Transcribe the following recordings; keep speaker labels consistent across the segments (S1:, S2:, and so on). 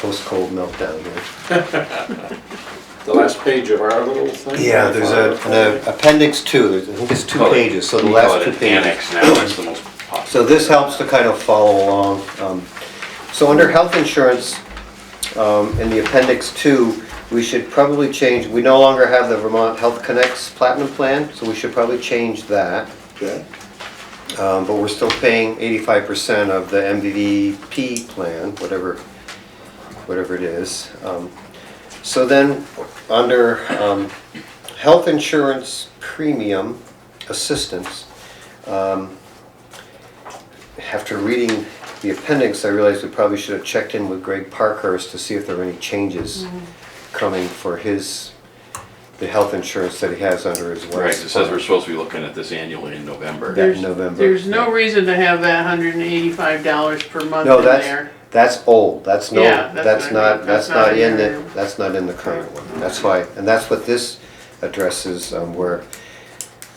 S1: post-cold meltdown here.
S2: The last page of our little thing?
S1: Yeah, there's a, an appendix two, there's, I think it's two pages, so the last two
S3: We call it an
S1: pages.
S3: annex now, it's the most popular.
S1: So this helps to kind of follow along. Um, So under health insurance, um, in the appendix two, we should probably change, we no longer have the Vermont Health Connects Platinum Plan, so we should probably change that.
S2: Okay.
S1: Um, But we're still paying eighty-five percent of the MVVP plan, whatever, whatever it is. Um, So then, under um, health insurance premium assistance, um, after reading the appendix, I realized we probably should have checked in with Greg Parkhurst to see if there were any changes coming for his, the health insurance that he has under his wife's.
S3: Right, it says
S1: plan.
S3: we're supposed to be looking at this annually in November.
S1: Yeah.
S4: There's-
S1: November.
S4: There's no reason to have that hundred and eighty-five dollars per month
S1: No,
S4: in
S1: that's,
S4: there.
S1: that's old, that's no,
S4: Yeah, that's
S1: that's
S4: what I mean.
S1: not, that's
S4: That's not
S1: not
S4: in
S1: in
S4: there.
S1: the, that's not in the current one. That's why, and that's what this addresses, um, where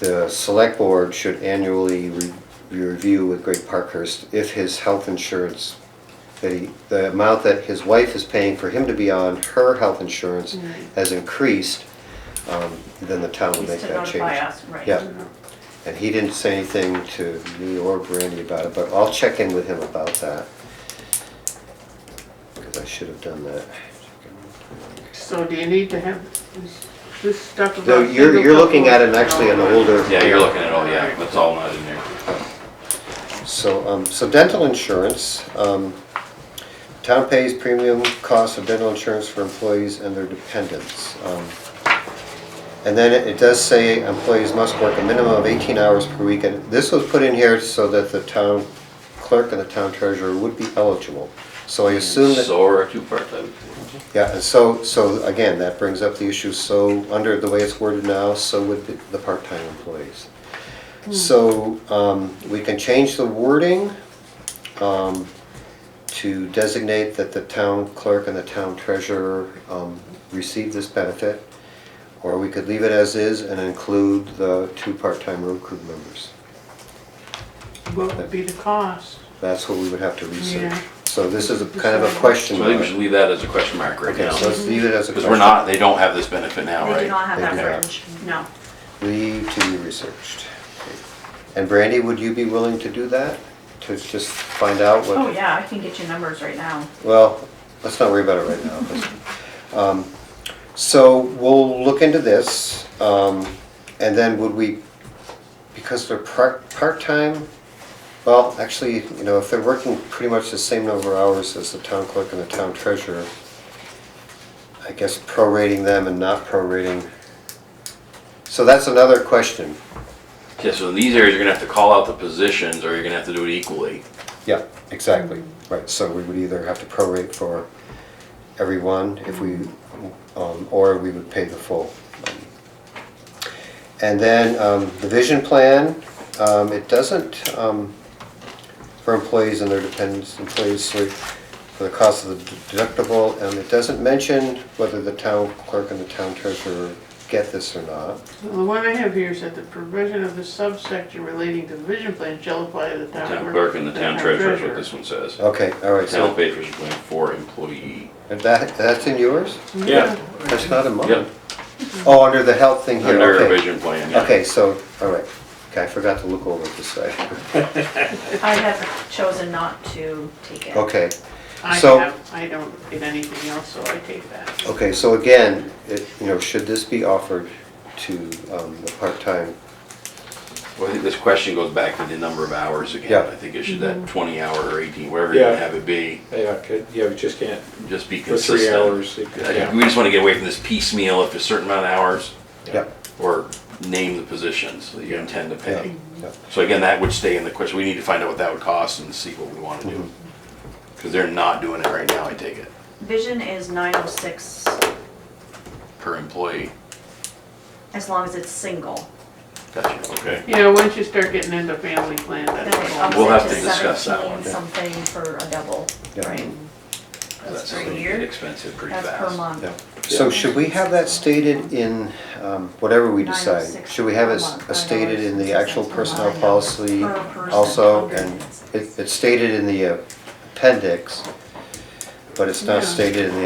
S1: the select board should annually re- review with Greg Parkhurst if his health insurance, that he, the amount that his wife is paying for him to be on her health insurance has increased, um, then the town will
S5: Is
S1: make
S5: to
S1: that change.
S5: notify us, right.
S1: Yeah. And he didn't say anything to me or Brandy about it, but I'll check in with him about that. Because I should have done that.
S4: So do you need to have this- this stuff about?
S1: No, you're,
S4: single
S1: you're looking at
S4: couples?
S1: it actually in
S4: No.
S1: an older.
S3: Yeah, you're looking at, oh yeah, that's all not in there.
S1: So, um, so dental insurance, um, town pays premium cost of dental insurance for employees and their dependents. Um, And then it- it does say employees must work a minimum of eighteen hours per week, and this was put in here so that the town clerk and the town treasurer would be eligible. So I assume that,
S3: So or two-part, then.
S1: yeah, and so, so again, that brings up the issue, so, under the way it's worded now, so would the- the part-time employees. Hmm. So, um, we can change the wording, um, to designate that the town clerk and the town treasurer, um, receive this benefit. Or we could leave it as is and include the two part-time road crew members.
S4: What would be the cost?
S1: That's what we would have to research.
S4: Yeah.
S1: So this is a kind of a question
S3: so I think we
S1: mark.
S3: should leave that as a question mark right
S1: Okay,
S3: now.
S1: so let's leave it as a
S3: Because
S1: question.
S3: we're not, they don't have this benefit now,
S5: They do not
S3: right?
S5: have
S1: They do
S5: that
S1: not.
S5: fringe, no.
S1: Leave to be researched. And Brandy, would you be willing to do that? To just find out what?
S5: Oh, yeah, I can get you numbers right now.
S1: Well, let's not worry about it right now. Let's- um, So we'll look into this, um, and then would we, because they're part, part-time, well, actually, you know, if they're working pretty much the same number of hours as the town clerk and the town treasurer, I guess prorating them and not prorating. So that's another question.
S3: Yeah, so in these areas, you're gonna have to call out the positions, or you're gonna have to do it equally.
S1: Yeah, exactly, right, so we would either have to prorate for everyone if we, um, or we would pay the full. And then, um, the vision plan, um, it doesn't, um, for employees and their dependents, employees, so for the cost of the deductible, and it doesn't mention whether the town clerk and the town treasurer get this or not.
S4: Well, The one I have here is that the provision of the subsection relating to the vision plan shall apply to the town.
S3: Town clerk and the town treasurer is what this one says.
S1: Okay, all right,
S3: Town
S1: so,
S3: pay vision plan for employee.
S1: and that, that's in yours?
S2: Yeah.
S1: That's not in mine.
S3: Yep,
S1: Oh, under the health thing here,
S3: under
S1: okay.
S3: vision plan, yeah.
S1: Okay, so, all right, okay, I forgot to look over this side,
S5: I have chosen not to take it.
S1: okay,
S4: I
S1: So-
S4: have, I don't get anything else, so I take that.
S1: okay, so again, it, you know, should this be offered to, um, the part-time?
S3: Well, I think this question goes back to the number of hours again.
S1: Yeah.
S3: I think it should, that twenty hour or eighteen, wherever you
S2: Yeah.
S3: have it be,
S2: Yeah, could- yeah, we just can't,
S3: just be
S2: for three
S3: consistent.
S2: hours. it could-
S3: I think
S2: yeah.
S3: We just wanna get away from this piecemeal, if it's a certain amount of hours,
S1: Yeah.
S3: or name the positions that you intend to
S1: Yeah,
S3: pay.
S1: yeah.
S3: So again, that would stay in the question, we need to find out what that would cost and see what we wanna do.
S2: Mm-hmm.
S3: Cause they're not doing it right now, I take it,
S5: Vision is nine oh six,
S3: per employee.
S5: as long as it's single.
S3: Gotcha, okay.
S4: You know, once you start getting into family plan,
S5: Then
S4: that's.
S5: it ups
S4: all.
S3: We'll
S5: it
S3: have to discuss that
S5: 17
S3: one, yeah.
S5: Something for a double,
S1: Yeah.
S5: right? That's
S3: gonna
S5: per
S3: get
S5: year,
S3: Expensive pretty
S5: that's
S3: fast.
S5: per month.
S1: Yeah. So should we have that stated in, um, whatever we decide?
S5: 906
S1: Should we have it
S5: per month,
S1: stated in the actual
S5: 906 per
S1: personnel
S5: month.
S1: policy
S5: Per person,
S1: also?
S5: okay.
S1: And it- it's stated in the appendix, but it's not
S4: Yeah.
S1: stated in the